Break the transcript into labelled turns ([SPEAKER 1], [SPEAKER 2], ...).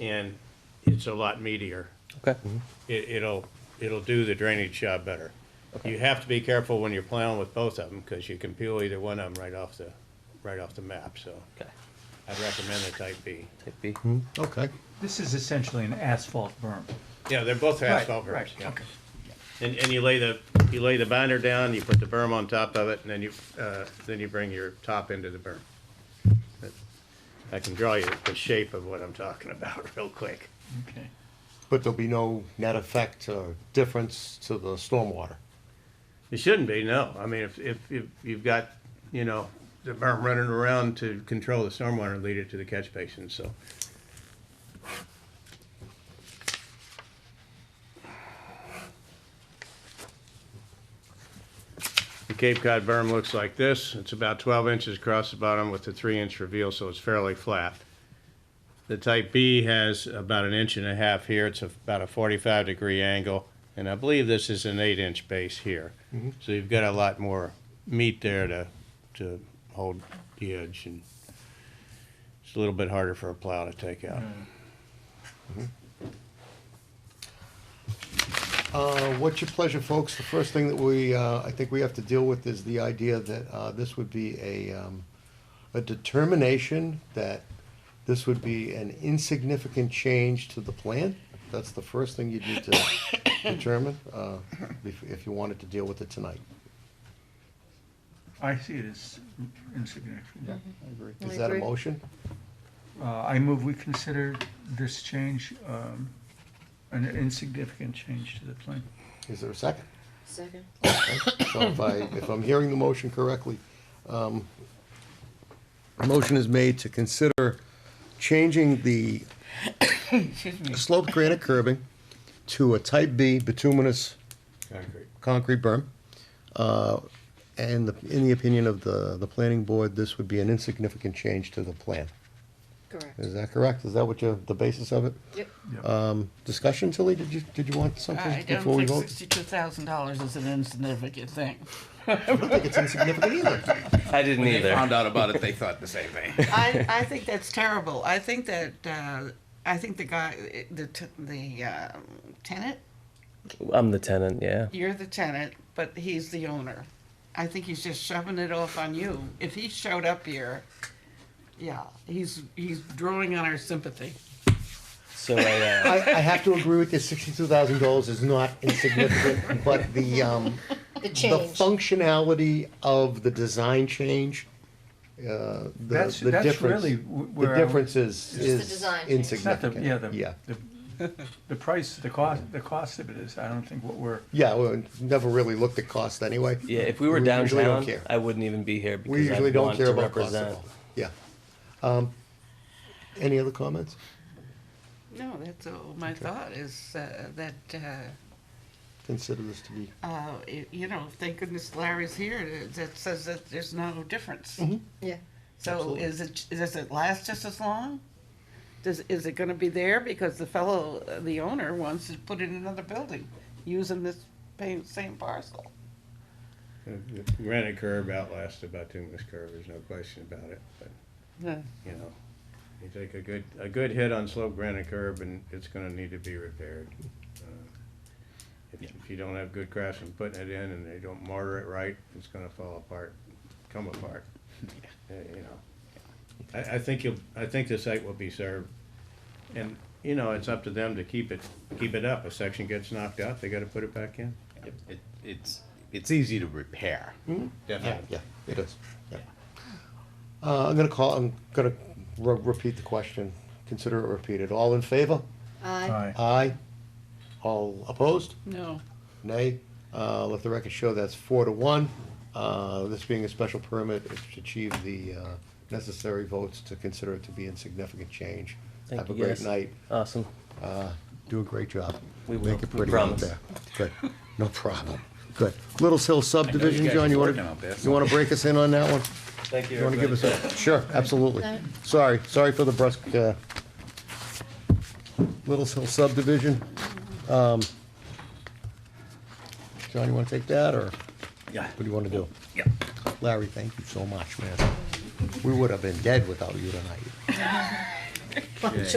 [SPEAKER 1] and it's a lot meatier.
[SPEAKER 2] Okay.
[SPEAKER 3] Mm-hmm.
[SPEAKER 1] It, it'll, it'll do the drainage job better. You have to be careful when you're plowing with both of them, because you can peel either one of them right off the, right off the map, so
[SPEAKER 2] Okay.
[SPEAKER 1] I'd recommend the type B.
[SPEAKER 2] Type B.
[SPEAKER 3] Okay.
[SPEAKER 4] This is essentially an asphalt berm.
[SPEAKER 1] Yeah, they're both asphalt
[SPEAKER 4] Right,
[SPEAKER 1] berms,
[SPEAKER 4] right,
[SPEAKER 1] yeah.
[SPEAKER 4] okay.
[SPEAKER 1] And, and you lay the, you lay the binder down, you put the berm on top of it, and then you, uh, then you bring your top into the berm. I can draw you the shape of what I'm talking about real quick.
[SPEAKER 4] Okay.
[SPEAKER 3] But there'll be no net effect or difference to the stormwater.
[SPEAKER 1] It shouldn't be, no. I mean, if, if, if you've got, you know, the berm running around to control the stormwater and lead it to the catch basin, so. The Cape Cod berm looks like this. It's about twelve inches across the bottom with a three-inch reveal, so it's fairly flat. The type B has about an inch and a half here. It's about a forty-five degree angle. And I believe this is an eight-inch base here. So you've got a lot more meat there to, to hold the edge and it's a little bit harder for a plow to take out.
[SPEAKER 3] Uh, what's your pleasure, folks? The first thing that we, uh, I think we have to deal with is the idea that, uh, this would be a, um, a determination that this would be an insignificant change to the plan. That's the first thing you'd need to determine, uh, if, if you wanted to deal with it tonight.
[SPEAKER 4] I see it as insignificant.
[SPEAKER 3] I agree.
[SPEAKER 5] I
[SPEAKER 3] Is that a
[SPEAKER 5] agree.
[SPEAKER 3] motion?
[SPEAKER 4] Uh, I move we consider this change um, an insignificant change to the plan.
[SPEAKER 3] Is there a second?
[SPEAKER 5] Second.
[SPEAKER 3] So if I, if I'm hearing the motion correctly, um, a motion is made to consider changing the
[SPEAKER 4] Excuse me.
[SPEAKER 3] sloped granite curbing to a type B bituminous
[SPEAKER 1] Concrete.
[SPEAKER 3] concrete berm. Uh, And the- in the opinion of the, the planning board, this would be an insignificant change to the plan.
[SPEAKER 5] Correct.
[SPEAKER 3] Is that correct? Is that what you, the basis of it?
[SPEAKER 5] Yep.
[SPEAKER 3] Um, Discussion, Tilly, did you, did you want
[SPEAKER 6] I
[SPEAKER 3] something
[SPEAKER 6] don't
[SPEAKER 3] before we
[SPEAKER 6] think
[SPEAKER 3] vote?
[SPEAKER 6] sixty-two thousand dollars is an insignificant thing.
[SPEAKER 3] I don't think it's insignificant either.
[SPEAKER 2] I didn't
[SPEAKER 7] When
[SPEAKER 2] either.
[SPEAKER 7] they found out about it, they thought the same thing.
[SPEAKER 6] I, I think that's terrible. I think that, uh, I think the guy, the, t- the, uh, tenant,
[SPEAKER 2] I'm the tenant. Yeah.
[SPEAKER 6] you're the tenant, but he's the owner. I think he's just shoving it off on you. If he showed up here, yeah, he's, he's drawing on our sympathy.
[SPEAKER 2] So I, uh,
[SPEAKER 3] I, I have to agree with you. Sixty-two thousand dollars is not insignificant, but the um,
[SPEAKER 5] The
[SPEAKER 3] the
[SPEAKER 5] change.
[SPEAKER 3] functionality of the design change, uh, the,
[SPEAKER 4] That's-
[SPEAKER 3] the
[SPEAKER 4] that's
[SPEAKER 3] difference,
[SPEAKER 4] really wh- where
[SPEAKER 3] the
[SPEAKER 4] I
[SPEAKER 3] difference is
[SPEAKER 5] the
[SPEAKER 3] is
[SPEAKER 5] design change.
[SPEAKER 4] It's not the,
[SPEAKER 3] insignificant.
[SPEAKER 4] yeah, the,
[SPEAKER 3] yeah,
[SPEAKER 4] the- the price, the cost, the cost of it is, I don't think what we're,
[SPEAKER 3] yeah. We never really looked at cost anyway.
[SPEAKER 2] yeah. If we were
[SPEAKER 3] usually don't
[SPEAKER 2] downtown,
[SPEAKER 3] care.
[SPEAKER 2] I wouldn't even be here because
[SPEAKER 3] we usually
[SPEAKER 2] I
[SPEAKER 3] don't
[SPEAKER 2] want
[SPEAKER 3] care
[SPEAKER 2] to
[SPEAKER 3] about cost at
[SPEAKER 2] represent.
[SPEAKER 3] all. Yeah. Um, any other comments?
[SPEAKER 6] No, that's all my thought is, uh, that, uh,
[SPEAKER 3] Consider this to be
[SPEAKER 6] uh, i- you know, thank goodness Larry's here, that- that says that there's no difference.
[SPEAKER 3] Mm-hmm.
[SPEAKER 5] Yeah.
[SPEAKER 6] So
[SPEAKER 3] Absolutely.
[SPEAKER 6] is it, does it last just as long? Does, is it gonna be there because the fellow, uh, the owner wants to put in another building using this pa- same parcel?
[SPEAKER 1] The Uh, the granite curb outlasts the bituminous curb, there's no question about it, but,
[SPEAKER 6] Yeah.
[SPEAKER 1] you know, you take a good, a good hit on slope granite curb and it's gonna need to be repaired. Uh, If if you don't have good craftsmen putting it in and they don't mortar it right, it's gonna fall apart, come apart, Uh, you know. I, I think you'll, I think the site will be served, and, you know, it's up to them to keep it, keep it up. A section gets knocked out, they gotta put it back in.
[SPEAKER 7] It, it's, it's easy to repair.
[SPEAKER 3] Yeah, yeah, it is. Yeah. Uh, I'm gonna call, I'm gonna re- repeat the question, consider it repeated. All in favor?
[SPEAKER 5] Aye.
[SPEAKER 4] aye.
[SPEAKER 3] Aye. All opposed?
[SPEAKER 6] No.
[SPEAKER 3] Nay? Uh, let the record show that's four to one. Uh, this being a special permit, it's to achieve the, uh, necessary votes to consider it to be insignificant change.
[SPEAKER 2] Thank
[SPEAKER 3] Have a
[SPEAKER 2] you,
[SPEAKER 3] great
[SPEAKER 2] guys.
[SPEAKER 3] night.
[SPEAKER 2] Awesome.
[SPEAKER 3] Uh, do a great job.
[SPEAKER 2] We will.
[SPEAKER 3] Make it
[SPEAKER 2] We
[SPEAKER 3] pretty out
[SPEAKER 2] promise.
[SPEAKER 3] there. Good, no problem. Good. Little Hill subdivision,
[SPEAKER 7] guys
[SPEAKER 3] John,
[SPEAKER 7] are
[SPEAKER 3] you
[SPEAKER 7] working
[SPEAKER 3] wanna,
[SPEAKER 7] out there,
[SPEAKER 3] you wanna break us in on that one?
[SPEAKER 2] Thank
[SPEAKER 3] You want to give us a, sure, absolutely.
[SPEAKER 5] No.
[SPEAKER 3] Sorry, sorry for the brusque, uh, Little Hill subdivision. Um, John, you want to take that, or what
[SPEAKER 7] Yeah.
[SPEAKER 3] do you want to do?
[SPEAKER 7] Yeah.
[SPEAKER 3] Larry, thank you so much, man. We would have been dead without you tonight.
[SPEAKER 5] Well,
[SPEAKER 7] Yeah.
[SPEAKER 5] so